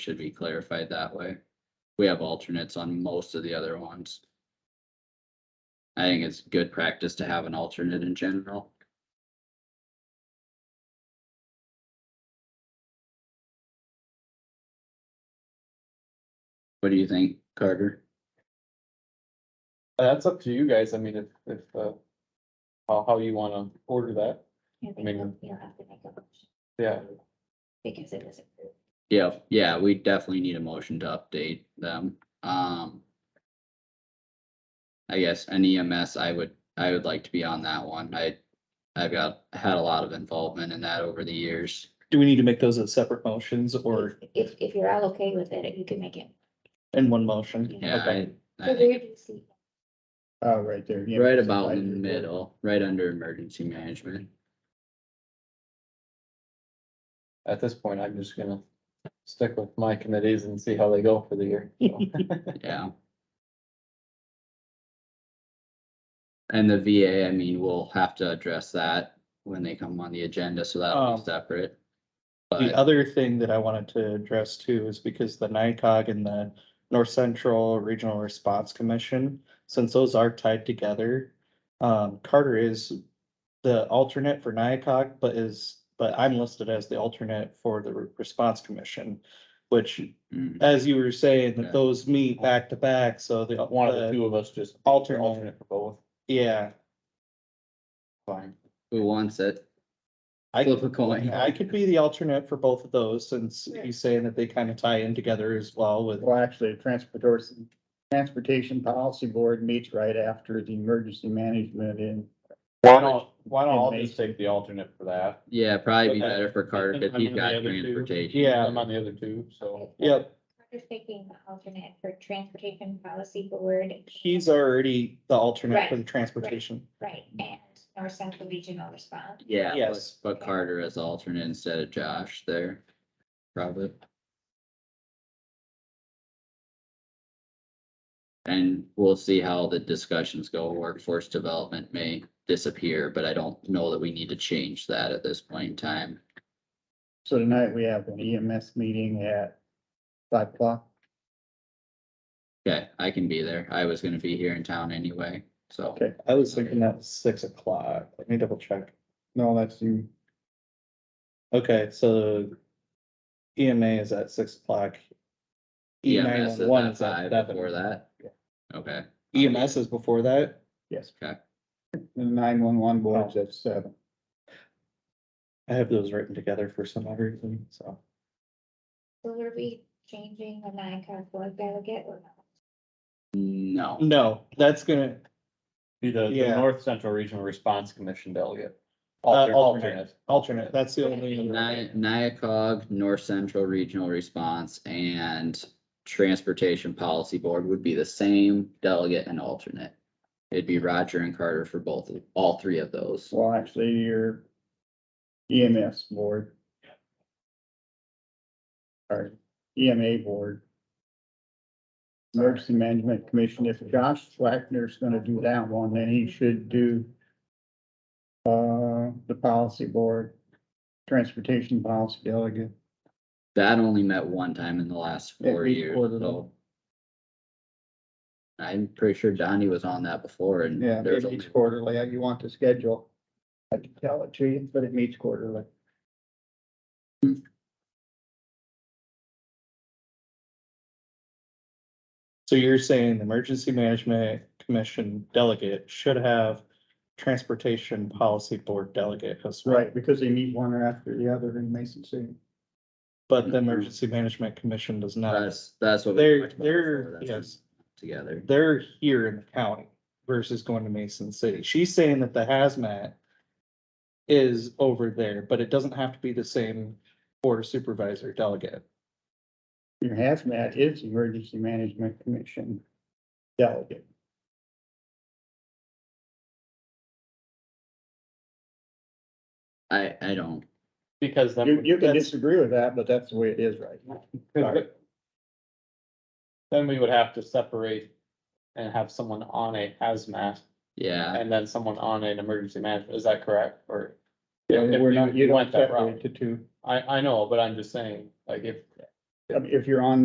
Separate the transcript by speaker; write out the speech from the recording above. Speaker 1: should be clarified that way. We have alternates on most of the other ones. I think it's good practice to have an alternate in general. What do you think, Carter?
Speaker 2: Uh, That's up to you guys. I mean, if, if, uh, how, how you wanna order that.
Speaker 3: Yeah,
Speaker 2: I mean-
Speaker 3: You'll you'll have to make a motion
Speaker 2: Yeah,
Speaker 3: because it was approved.
Speaker 1: Yeah, yeah, we definitely need a motion to update them, um. I guess an EMS, I would, I would like to be on that one, I, I've got, had a lot of involvement in that over the years.
Speaker 4: Do we need to make those as separate motions or
Speaker 3: If, if you're all okay with it, you can make it.
Speaker 4: in one motion?
Speaker 1: Yeah,
Speaker 4: Okay.
Speaker 1: I-
Speaker 3: So
Speaker 1: I-
Speaker 3: where do you see?
Speaker 5: Uh, right there. yeah,
Speaker 1: Right
Speaker 5: it's
Speaker 1: about in the
Speaker 5: advisory board.
Speaker 1: middle, right under emergency management,
Speaker 2: at this point, I'm just gonna stick with my committees and see how they go for the year. so.
Speaker 1: yeah. And the VA, I mean, we'll have to address that when they come on the agenda, so that'll be
Speaker 4: Um,
Speaker 1: separate.
Speaker 4: The
Speaker 1: But,
Speaker 4: other thing that I wanted to address too is because the NICOG and the North Central Regional Response Commission, since those are tied together, um, Carter is the alternate for NICOG, but is, but I'm listed as the alternate for the Re- Response Commission, which,
Speaker 1: mm,
Speaker 4: as you were saying,
Speaker 1: Yeah.
Speaker 4: that those meet back to back, so the.
Speaker 2: uh, One of the two of us just.
Speaker 4: Uh, alternate.
Speaker 2: Alternate for both.
Speaker 4: Yeah,
Speaker 2: Fine.
Speaker 1: who wants it?
Speaker 4: I
Speaker 1: Flip a coin.
Speaker 4: Yeah, I could be the alternate for both of those, since he's saying that they kind of tie in together as well with,
Speaker 5: Well, actually, the transportation, transportation policy board meets right after the emergency management in.
Speaker 2: Why don't, why don't
Speaker 5: And
Speaker 2: I
Speaker 5: they-
Speaker 2: just take the alternate for that?
Speaker 1: Yeah, probably be
Speaker 2: Okay.
Speaker 1: better for Carter,
Speaker 2: And
Speaker 1: if
Speaker 2: I'm
Speaker 1: he's
Speaker 2: on the
Speaker 1: got
Speaker 2: other two.
Speaker 1: transportation.
Speaker 4: yeah.
Speaker 2: I'm on the other two, so.
Speaker 4: Yep,
Speaker 3: Carter's taking the alternate for Transportation Policy Board.
Speaker 4: he's already the alternate for the transportation.
Speaker 3: Right, and North Central Regional Response.
Speaker 1: Yeah, but,
Speaker 4: Yes.
Speaker 1: but Carter as alternate instead of Josh there, probably. And we'll see how the discussions go. Workforce development may disappear, but I don't know that we need to change that at this point in time.
Speaker 5: So tonight we have an EMS meeting at five o'clock.
Speaker 1: Okay, I can be there. I was gonna be here in town anyway, so.
Speaker 5: Okay.
Speaker 4: I was thinking that was six o'clock, let me double check.
Speaker 5: No, that's you.
Speaker 4: Okay, so EMA is at six o'clock. E nine
Speaker 1: EMS
Speaker 4: one
Speaker 1: is
Speaker 4: one
Speaker 1: at
Speaker 4: is at
Speaker 1: five
Speaker 4: seven.
Speaker 1: before that. Okay,
Speaker 4: EMS is before that?
Speaker 5: Yes.
Speaker 1: Okay.
Speaker 5: The nine-one-one board's at seven.
Speaker 4: I have those written together for some odd reason, so.
Speaker 3: So were we changing the NICOG board delegate or not?
Speaker 1: no.
Speaker 4: No, that's gonna,
Speaker 2: Be the, the
Speaker 4: Yeah.
Speaker 2: North Central Regional Response Commission delegate.
Speaker 4: Uh,
Speaker 2: Alter-
Speaker 4: alternate. alternate, that's the only.
Speaker 1: Ni- Nyakog, North Central Regional Response and Transportation Policy Board would be the same delegate and alternate. It'd be Roger and Carter for both, of all three of those.
Speaker 5: Well, actually, your EMS board. Or EMA E board. Emergency Management Commission, if Josh Wagner's gonna do that one, then he should do. Uh, the policy board, transportation policy delegate.
Speaker 1: That only met one time in the last four
Speaker 5: At least
Speaker 1: years,
Speaker 5: quarterly.
Speaker 1: so. I'm pretty sure Donnie was on that before and
Speaker 5: Yeah,
Speaker 1: there's
Speaker 5: it
Speaker 1: only,
Speaker 5: meets quarterly, uh, you want the schedule. I can tell it to you, but it meets quarterly.
Speaker 4: So you're saying the emergency management commission delegate should have transportation policy board delegate as well.
Speaker 5: Right, because they meet one after the other in Mason City.
Speaker 4: But the emergency management commission does not.
Speaker 1: that's, that's what. we
Speaker 4: They're,
Speaker 1: talked about before,
Speaker 4: they're,
Speaker 1: that's
Speaker 4: yes,
Speaker 1: Together.
Speaker 4: they're here in the county versus going to Mason City. She's saying that the hazmat is over there, but it doesn't have to be the same board of supervisor delegate.
Speaker 5: Your hazmat is Emergency Management Commission delegate.
Speaker 1: I, I don't,
Speaker 2: Because that
Speaker 5: You,
Speaker 2: would-
Speaker 5: you can
Speaker 2: that's-
Speaker 5: disagree with that, but that's the way it is right now. Sorry.
Speaker 2: Then we would have to separate and have someone on a hazmat
Speaker 1: yeah.
Speaker 2: and then someone on an emergency management, is that correct, or?
Speaker 5: Yeah,
Speaker 2: if
Speaker 5: We're
Speaker 2: we
Speaker 5: not, you don't
Speaker 2: went that route.
Speaker 5: separate the two.
Speaker 2: I, I know, but I'm just saying, like, if,
Speaker 5: I mean, if you're on